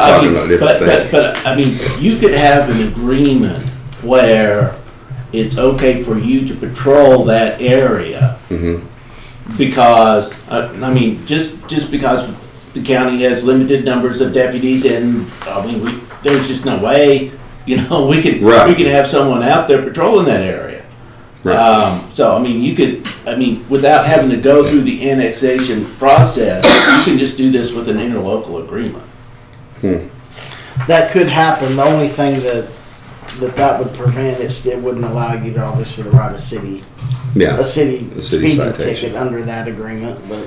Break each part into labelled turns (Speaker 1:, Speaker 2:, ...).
Speaker 1: talking
Speaker 2: mean,
Speaker 1: about different
Speaker 2: but,
Speaker 1: things.
Speaker 2: but, but, I mean, you could have an agreement where it's okay for you to patrol that area.
Speaker 1: Mm-hmm.
Speaker 2: Because, I, I mean, just, just because the county has limited numbers of deputies and, I mean, we, there's just no way, you know, we could, we
Speaker 1: Right.
Speaker 2: could have someone out there patrolling that area.
Speaker 1: Right.
Speaker 2: Um, so, I mean, you could, I mean, without having to go through the annexation process, you can just do this with an interlocal agreement.
Speaker 3: That could happen. The only thing that that that would prevent is it wouldn't allow you to obviously to write a city a
Speaker 1: Yeah,
Speaker 3: city,
Speaker 1: A city
Speaker 3: speeding
Speaker 1: citation.
Speaker 3: ticket under that agreement. But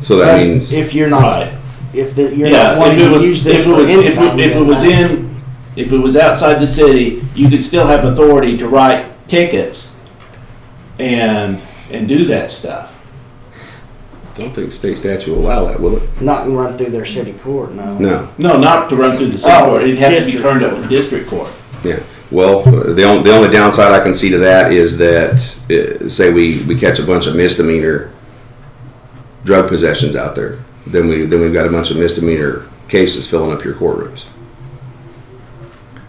Speaker 1: so that means,
Speaker 3: if you're not
Speaker 2: Right.
Speaker 3: if the, you're not
Speaker 2: Yeah, if
Speaker 3: wanting
Speaker 2: it
Speaker 3: to
Speaker 2: was,
Speaker 3: use
Speaker 2: if
Speaker 3: this
Speaker 2: it was,
Speaker 3: for
Speaker 2: if
Speaker 3: income,
Speaker 2: it, if it
Speaker 3: then
Speaker 2: was
Speaker 3: that-
Speaker 2: in, if it was outside the city, you could still have authority to write tickets and, and do that stuff.
Speaker 1: don't think state statute will allow that, will it?
Speaker 3: not and run through their city court, no.
Speaker 1: No,
Speaker 2: No, not to run through the city
Speaker 3: Oh,
Speaker 2: court, it'd have to be
Speaker 3: district
Speaker 2: turned up to district court.
Speaker 1: yeah. Well, the only, the only downside I can see to that is that, uh, say we, we catch a bunch of misdemeanor drug possessions out there, then we, then we've got a bunch of misdemeanor cases filling up your courtrooms.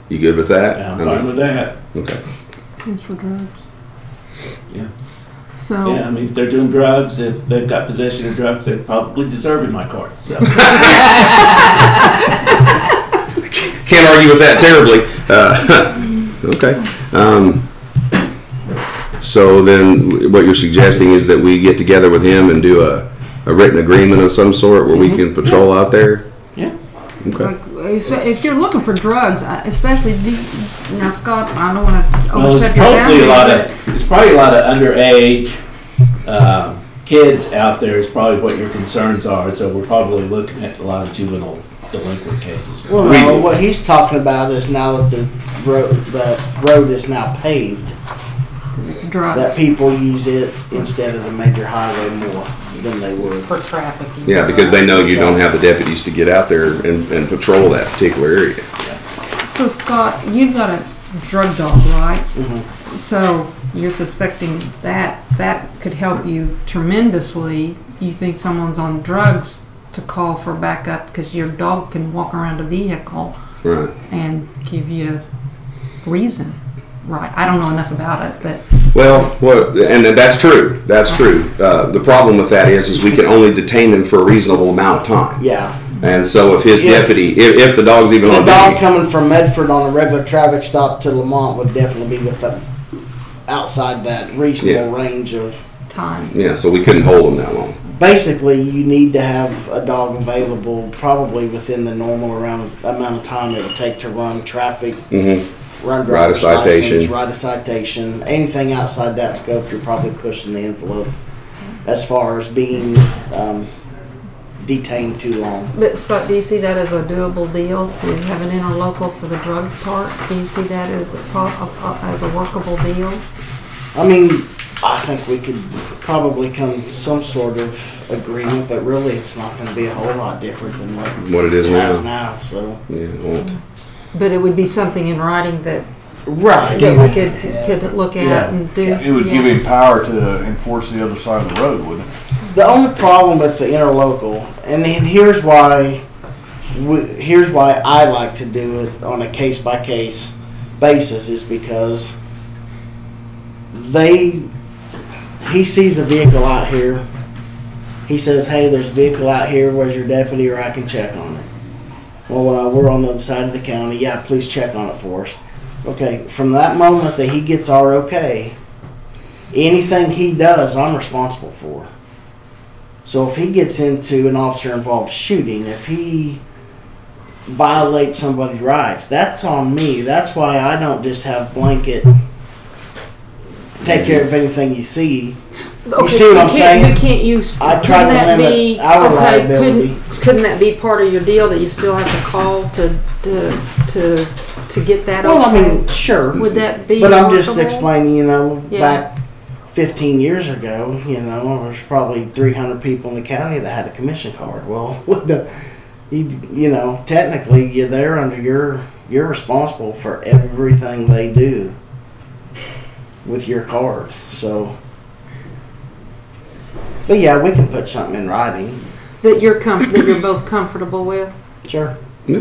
Speaker 1: You good with that?
Speaker 2: Yeah, I'm
Speaker 1: I
Speaker 2: fine
Speaker 1: mean,
Speaker 2: with that,
Speaker 1: Okay,
Speaker 4: It's for drugs.
Speaker 2: yeah.
Speaker 4: So,
Speaker 2: Yeah, I mean, if they're doing drugs, if they've got possession of drugs, they probably deserve in my court, so.
Speaker 1: can't argue with that terribly. Uh, Okay. Um, So then, what you're suggesting is that we get together with him and do a, a written agreement of some sort where we can
Speaker 3: Mm-hmm.
Speaker 1: patrol out there?
Speaker 2: Yeah.
Speaker 1: Okay.
Speaker 4: like, espe- if you're looking for drugs, I- especially do, now, Scott, I don't want to
Speaker 2: Well,
Speaker 4: overstep
Speaker 2: there's
Speaker 4: your
Speaker 2: probably a
Speaker 4: boundaries,
Speaker 2: lot
Speaker 4: but
Speaker 2: of, there's probably a lot of underage, um, kids out there is probably what your concerns are, so we're probably looking at a lot of juvenile delinquent cases.
Speaker 3: Well, no, what he's talking about is now that the road the road is now paved,
Speaker 4: it's drugs.
Speaker 3: that people use it instead of the major highway more than they would.
Speaker 5: for trafficking.
Speaker 1: Yeah, because they know you don't have the deputies to get out there and, and patrol that particular area.
Speaker 4: So, Scott, you've got a drug dog, right?
Speaker 2: Mm-hmm.
Speaker 4: So, you're suspecting that that could help you tremendously. You think someone's on drugs to call for backup because your dog can walk around a vehicle
Speaker 1: Right.
Speaker 4: and give you reason, right? I don't know enough about it, but
Speaker 1: Well, what, and that's true. That's
Speaker 3: Uh-huh.
Speaker 1: true. Uh, the problem with that is, is we can only detain them for a reasonable amount of time.
Speaker 3: Yeah.
Speaker 1: And so if his
Speaker 3: If-
Speaker 1: deputy, if, if the dog's even
Speaker 3: The
Speaker 1: on
Speaker 3: dog
Speaker 1: duty,
Speaker 3: coming from Medford on a regular traffic stop to Lamont would definitely be with them outside that reasonable range of.
Speaker 4: time.
Speaker 1: yeah, so we couldn't hold him that long.
Speaker 3: Basically, you need to have a dog available probably within the normal around amount of time it would take to run traffic,
Speaker 1: Mm-hmm.
Speaker 3: run
Speaker 1: Write a
Speaker 3: driver's license,
Speaker 1: citation.
Speaker 3: write a citation. Anything outside that scope, you're probably pushing the envelope as far as being um, detained too long.
Speaker 4: But Scott, do you see that as a doable deal to have an interlocal for the drug part? Do you see that as a pro- a, a, as a workable deal?
Speaker 3: I mean, I think we could probably come to some sort of agreement, but really it's not going to be a whole lot different than what,
Speaker 1: What it is
Speaker 3: has
Speaker 1: now.
Speaker 3: now. So
Speaker 1: Yeah, it won't.
Speaker 4: But it would be something in writing that
Speaker 3: right,
Speaker 4: that we could, could look
Speaker 3: Yeah.
Speaker 4: at and do.
Speaker 6: It would give
Speaker 4: yeah.
Speaker 6: him power to enforce the other side of the road, wouldn't it?
Speaker 3: the only problem with the interlocal, and then here's why, we, here's why I like to do it on a case by case basis is because they, he sees a vehicle out here. He says, "Hey, there's a vehicle out here. Where's your deputy, or I can check on it." Well, uh, we're on the other side of the county. Yeah, please check on it for us. Okay, from that moment that he gets our okay, anything he does, I'm responsible for. So if he gets into an officer involved shooting, if he violates somebody's rights, that's on me. That's why I don't just have blanket take care of anything you see.
Speaker 4: Okay,
Speaker 3: see what
Speaker 4: but
Speaker 3: I'm
Speaker 4: can't-
Speaker 3: saying?
Speaker 4: But can't you, s-
Speaker 3: I
Speaker 4: couldn't
Speaker 3: try to
Speaker 4: that
Speaker 3: limit
Speaker 4: be,
Speaker 3: our
Speaker 4: okay,
Speaker 3: liability.
Speaker 4: couldn't, couldn't that be part of your deal that you still have to call to, to, to, to get that
Speaker 3: Well, I
Speaker 4: okay?
Speaker 3: mean, sure.
Speaker 4: Would that be
Speaker 3: But I'm just
Speaker 4: workable?
Speaker 3: explaining, you know,
Speaker 4: Yeah.
Speaker 3: back 15 years ago, you know, there's probably 300 people in the county that had a commission card. Well, what the, you, you know, technically, you're there under your, you're responsible for everything they do with your card. So, but yeah, we can put something in writing.
Speaker 4: That you're com, that you're both comfortable with?
Speaker 3: Sure.